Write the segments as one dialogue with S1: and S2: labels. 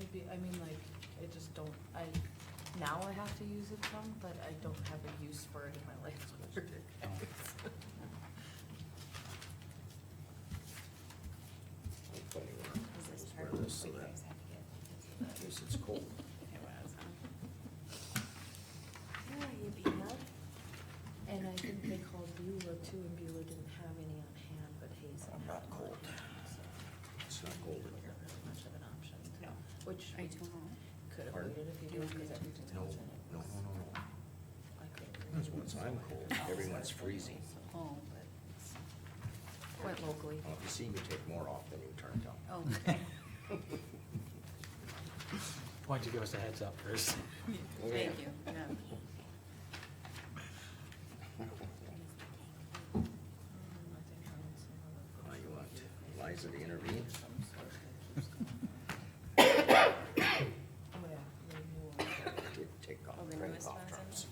S1: should be, I mean, like, I just don't, I, now I have to use it some, but I don't have a use for it in my life's work.
S2: This is
S3: Wear
S2: part of
S3: this so
S2: what you
S3: that-
S2: guys have to get.
S3: In case it's cold.
S2: It was, huh?
S1: Yeah, you And I think they called Beulah too, and Beulah didn't have any on hand, but Hazen
S3: I'm
S1: had
S3: not
S1: one.
S3: cold. It's
S1: so
S3: not cold in here.
S1: Wasn't really much of an option,
S2: No.
S1: which we
S2: I don't know.
S1: could have
S3: Pardon?
S1: waited if you
S2: Do you
S1: did,
S2: want me
S1: because
S2: to-
S1: every time
S3: No,
S1: I was
S3: no,
S1: in it.
S3: no,
S1: was-
S3: no, no.
S1: I couldn't.
S3: That's once I'm cold, everyone's
S1: Oh.
S3: freezing.
S2: Oh,
S1: Quite locally.
S3: Well, if you see me take more off than you turned down.
S2: oh, okay.
S4: Why don't you give us a heads up first?
S3: Okay.
S2: Thank you, yeah.
S1: Mm, I think I want some
S3: Uh,
S1: other
S3: Oh, you want Liza to intervene?
S1: of some sort that keeps going. Oh, yeah, the new one.
S3: Did take off,
S2: Oh, the
S3: drink
S2: newest
S3: off
S2: one's in
S3: drops.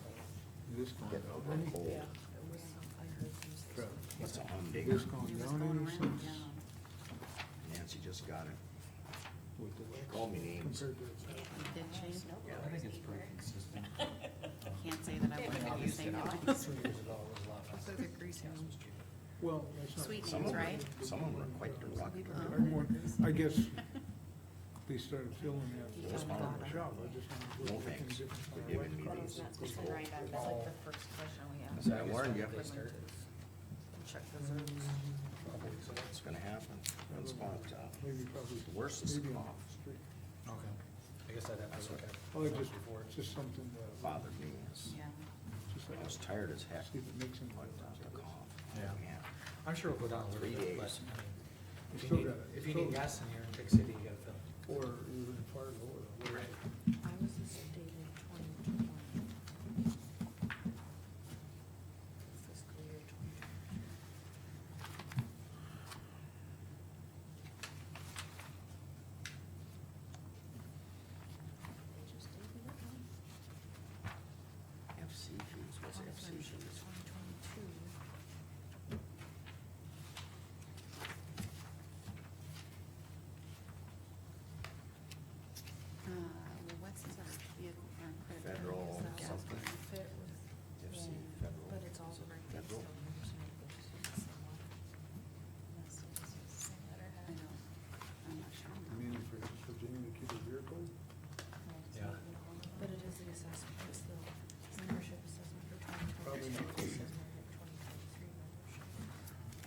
S5: This gone
S3: Get
S5: down
S3: over
S5: any?
S3: cold.
S1: Yeah, it was some, I heard you say
S5: Crap.
S1: something.
S3: What's a
S5: This
S3: humdinger?
S5: gone
S2: It was
S5: down
S2: going
S5: any
S2: around,
S5: since?
S2: yeah.
S3: Nancy just got it.
S5: With the wax
S3: Call me names.
S5: compared to-
S2: It did change,
S3: Yeah.
S4: I think it's pretty consistent.
S2: can't say that I
S1: Yeah,
S2: would
S1: but
S2: have the
S1: used
S2: same.
S1: it all.
S4: Three years ago was a lot less.
S2: So the grease hound.
S5: Well, that's not.
S2: Sweet
S3: Some of
S2: names, right?
S3: them, some of them are quite derogatory.
S5: I want- I guess they started filling that
S3: Those
S5: spot in the
S3: aren't-
S5: shop, I just wanted to.
S3: No thanks for giving me these.
S2: It's been right up.
S1: That's like the first question we asked.
S3: So I warned you.
S1: Check reserves.
S3: It's gonna happen. One spot, uh,
S5: Maybe probably.
S3: the worst is
S5: maybe on
S3: cough.
S5: the street.
S4: Okay. I guess I'd have to look at it.
S5: Oh, it just,
S4: before.
S5: it's just something that. uh,
S3: bothered me is,
S2: Yeah.
S5: Just like,
S3: I was tired as heck,
S5: see if it makes them.
S3: but uh, the cough.
S4: Yeah.
S3: Man,
S4: I'm sure it'll go down a little
S3: Three
S4: bit, but
S3: days.
S4: I mean, if
S5: Still
S4: you need,
S5: got it.
S4: if you
S5: Still-
S4: need gas in here in Big City, you gotta fill. it.
S5: Or even far lower. whatever.
S1: I was a state in twenty twenty. Fiscal year twenty twenty. They just gave me that one.
S3: FC fees, what's FC fees?
S1: Twenty twenty-two.
S2: Uh, well, what's his, uh, vehicle farm credit? card?
S3: Federal
S2: Is that
S3: something.
S2: what's going-
S1: Fit with.
S3: FC
S1: Yeah,
S3: federal.
S1: But it's all
S3: Is it
S1: right next to
S3: Federal.
S1: them, so it's somewhat-
S2: Unless it's the same letterhead. I know, I'm not sure.
S5: I mean, if it's Virginia to the vehicle,
S4: Yeah.
S1: But it is the assessment, it's the membership assessment for twenty
S5: Probably
S1: twenty-two,
S5: not.
S1: assessment for twenty twenty-three membership.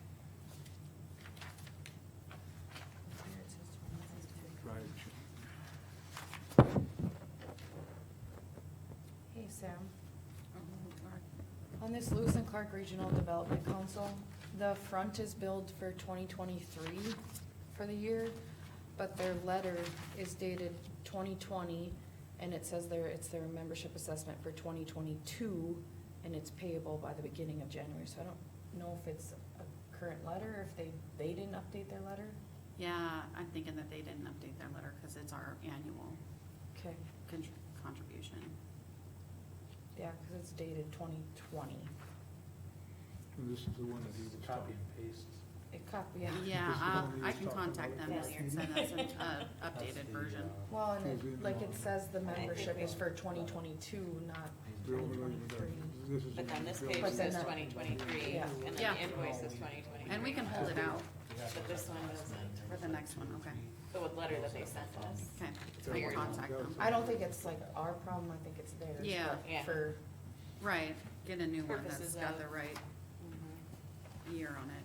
S1: Up here it says 2022.
S5: right.
S1: Hey, Sam,
S2: Or- or-
S1: on this Lewis and Clark Regional Development Council, the front is billed for twenty twenty-three for the year, but their letter is dated twenty twenty, and it says there, it's their membership assessment for twenty twenty-two, and it's payable by the beginning of January, so I don't know if it's a current letter, or if they, they didn't update their letter.
S2: Yeah, I'm thinking that they didn't update their letter, cause it's our annual
S1: Okay,
S2: contr- contribution.
S1: yeah, cause it's dated twenty twenty.
S5: And this is the one that he was
S4: Copy
S5: talking.
S4: and paste.
S1: It copy, yeah.
S2: Yeah,
S5: This is
S2: I'll-
S5: the one we
S2: I
S5: was
S2: can
S5: talking
S2: contact
S5: about
S2: them this
S1: last
S2: year and send us an, uh,
S4: That's
S2: updated
S4: the,
S2: version.
S4: uh,
S1: Well, and it,
S5: Tuesday
S1: like
S5: morning.
S1: it says, the
S6: I think
S1: membership
S6: we-
S1: is for twenty twenty-two, not
S5: Bill,
S1: twenty
S5: whatever that-
S1: twenty-three.
S5: this is the
S6: But then
S5: one
S6: this
S5: Bill-
S6: page
S1: But then
S6: says
S1: that-
S6: twenty twenty-three,
S1: Yeah.
S6: and then
S2: Yeah.
S6: the invoice is twenty twenty-three.
S2: And we can hold it out
S6: But this one doesn't,
S2: for the next one, okay?
S6: the letter that they sent us.
S2: Okay, so
S6: Figured
S2: we'll
S6: it
S2: contact them.
S1: I don't think it's like our problem, I think it's theirs.
S2: Yeah.
S1: but
S6: Yeah.
S1: For,
S2: Right, get a new one that's
S6: Purposes
S2: got
S6: of-
S2: the right
S6: Mhm.
S2: year
S3: Oh,
S2: on it. um, uh,
S3: Ah,